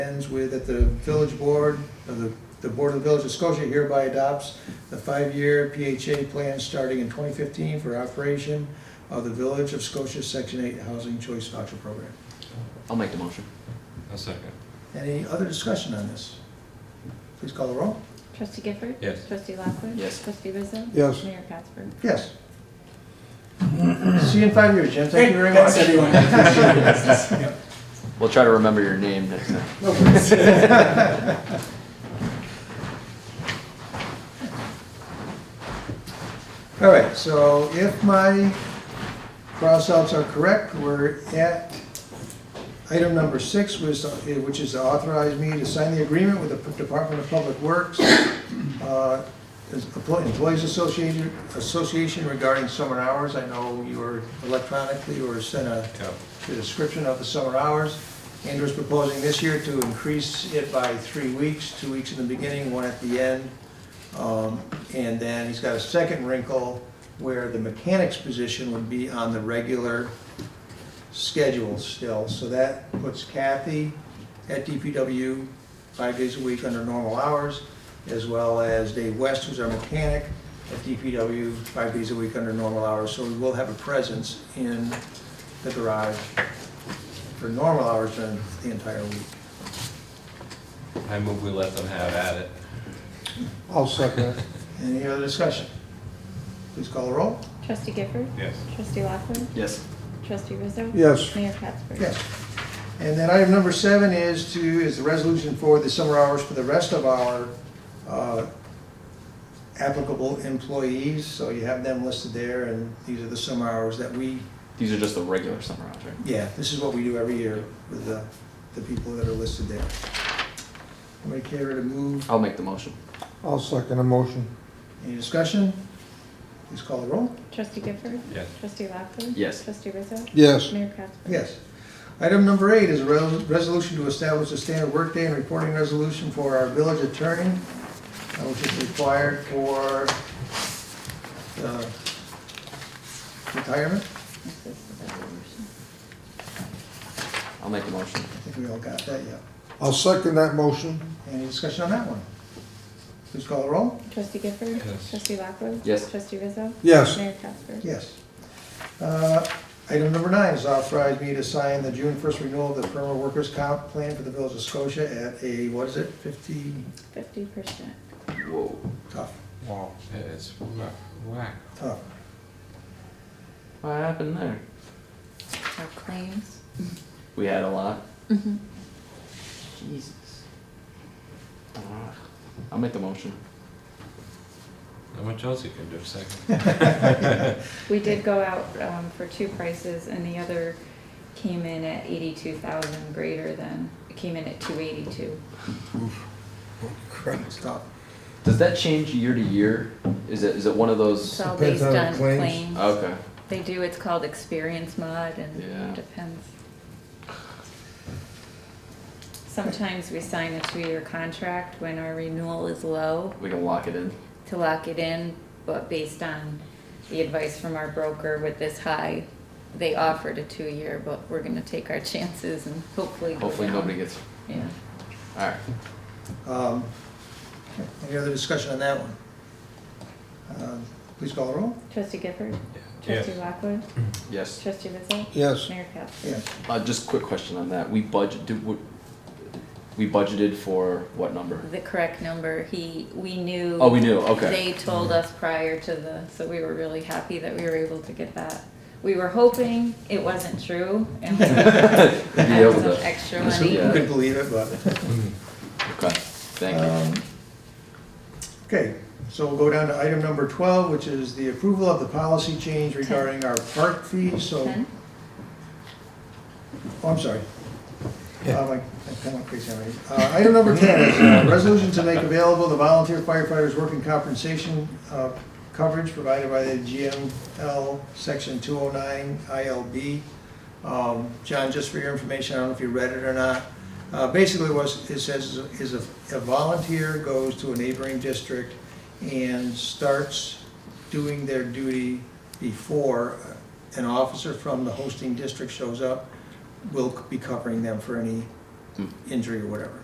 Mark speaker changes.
Speaker 1: ends with that the village board, or the, the board of the village of Scotia hereby adopts the five-year PHA plan starting in twenty fifteen for operation of the village of Scotia Section Eight Housing Choice Voucher Program.
Speaker 2: I'll make the motion.
Speaker 3: A second.
Speaker 1: Any other discussion on this? Please call the roll.
Speaker 4: Trustee Gifford?
Speaker 3: Yes.
Speaker 4: Trustee Lockwood?
Speaker 2: Yes.
Speaker 4: Trustee Rizzo?
Speaker 5: Yes.
Speaker 4: Mayor Katsberg?
Speaker 1: Yes. See you in five years, Jim. Thank you very much.
Speaker 2: We'll try to remember your name next time.
Speaker 1: All right, so if my cross-outs are correct, we're at item number six, which is- which is to authorize me to sign the agreement with the Department of Public Works, uh, as Employ- Employees Association Association regarding summer hours. I know you were electronically or sent a
Speaker 3: Yeah.
Speaker 1: the description of the summer hours. Andrew's proposing this year to increase it by three weeks, two weeks in the beginning, one at the end. Um, And then he's got a second wrinkle where the mechanic's position would be on the regular schedule still. So that puts Kathy at DPW five days a week under normal hours, as well as Dave West, who's our mechanic, at DPW five days a week under normal hours. So we will have a presence in the garage for normal hours during the entire week.
Speaker 3: I move we let them have at it.
Speaker 5: I'll second it.
Speaker 1: Any other discussion? Please call the roll.
Speaker 4: Trustee Gifford?
Speaker 3: Yes.
Speaker 4: Trustee Lockwood?
Speaker 2: Yes.
Speaker 4: Trustee Rizzo?
Speaker 5: Yes.
Speaker 4: Mayor Katsberg?
Speaker 1: Yes. And then item number seven is to, is the resolution for the summer hours for the rest of our uh, applicable employees. So you have them listed there, and these are the summer hours that we,
Speaker 2: These are just the regular summer hours, right?
Speaker 1: yeah, this is what we do every year with the, the people that are listed there. Somebody care to move?
Speaker 2: I'll make the motion.
Speaker 5: I'll second the motion.
Speaker 1: Any discussion? Please call the roll.
Speaker 4: Trustee Gifford?
Speaker 3: Yes.
Speaker 4: Trustee Lockwood?
Speaker 2: Yes.
Speaker 4: Trustee Rizzo?
Speaker 5: Yes,
Speaker 4: Mayor Katsberg?
Speaker 1: Yes. Item number eight is a res- resolution to establish a standard workday and reporting resolution for our village attorney, uh, which is required for uh, retirement.
Speaker 4: This is the resolution.
Speaker 2: I'll make the motion.
Speaker 1: I think we all got that, yeah.
Speaker 5: I'll second that motion.
Speaker 1: Any discussion on that one? Please call the roll.
Speaker 4: Trustee Gifford?
Speaker 3: Yes.
Speaker 4: Trustee Lockwood?
Speaker 2: Yes.
Speaker 4: Trustee Rizzo?
Speaker 5: Yes,
Speaker 4: Mayor Katsberg?
Speaker 1: Yes. Uh, Item number nine is authorize me to sign the June 1st renewal of the permanent workers' comp plan for the village of Scotia at a, what is it, 50,
Speaker 4: Fifty percent.
Speaker 2: Whoa.
Speaker 1: tough,
Speaker 3: Wow. It's wha- whack.
Speaker 1: tough.
Speaker 2: What happened there?
Speaker 4: Our claims?
Speaker 2: We had a lot.
Speaker 4: Mm-hmm.
Speaker 2: Jesus. Ugh. I'll make the motion.
Speaker 3: How much else you can do, second?
Speaker 4: We did go out, um, for two prices and the other came in at eighty-two thousand greater than, it came in at two eighty-two.
Speaker 1: Oh, It's tough.
Speaker 2: Does that change year to year? Is it, is it one of
Speaker 4: It's
Speaker 2: those?
Speaker 4: all
Speaker 5: Depends
Speaker 4: based
Speaker 5: on
Speaker 4: on
Speaker 5: claims.
Speaker 4: claims.
Speaker 2: Okay.
Speaker 4: They do, it's called experience mod
Speaker 2: Yeah.
Speaker 4: and depends. Sometimes we sign a two-year contract when our renewal is low
Speaker 2: We can lock it in.
Speaker 4: to lock it in, but based on the advice from our broker with this high, they offered a two-year, but we're gonna take our chances and hopefully go
Speaker 2: Hopefully
Speaker 4: down.
Speaker 2: nobody gets,
Speaker 4: Yeah.
Speaker 2: all right.
Speaker 1: Um, okay, Any other discussion on that one? Um, Please call the roll.
Speaker 4: Trustee Gifford?
Speaker 3: Yes.
Speaker 4: Trustee Lockwood?
Speaker 2: Yes.
Speaker 4: Trustee Rizzo?
Speaker 5: yes,
Speaker 4: Mayor Katsberg?
Speaker 1: Yeah,
Speaker 2: Uh, just quick question on that. We budget, do, we- we budgeted for what number?
Speaker 4: The correct number, he, we knew.
Speaker 2: Oh, we knew, okay. Mm-hmm.
Speaker 4: They told us prior to the, so we were really happy that we were able to get that. We were hoping it wasn't true and we
Speaker 2: Be
Speaker 4: had
Speaker 2: able
Speaker 4: some
Speaker 2: to,
Speaker 4: extra
Speaker 1: So
Speaker 4: money.
Speaker 1: you
Speaker 2: Yeah.
Speaker 1: couldn't believe it, but.
Speaker 2: okay, thank you.
Speaker 1: um, Okay, so we'll go down to item number 12, which is the approval of the policy change regarding our park fees, so.
Speaker 4: Ten?
Speaker 1: Oh, I'm sorry.
Speaker 5: Yeah.
Speaker 1: Uh, like, I'm kind of crazy already. Uh, Item number 10 is uh, resolution to make available the volunteer firefighters' working compensation uh, coverage provided by the GML Section 209 ILB. Um, John, just for your information, I don't know if you read it or not. Uh, Basically, was, it says is a a volunteer goes to a neighboring district and starts doing their duty before an officer from the hosting district shows up, we'll be covering them for any
Speaker 2: Hmm.
Speaker 1: injury or whatever.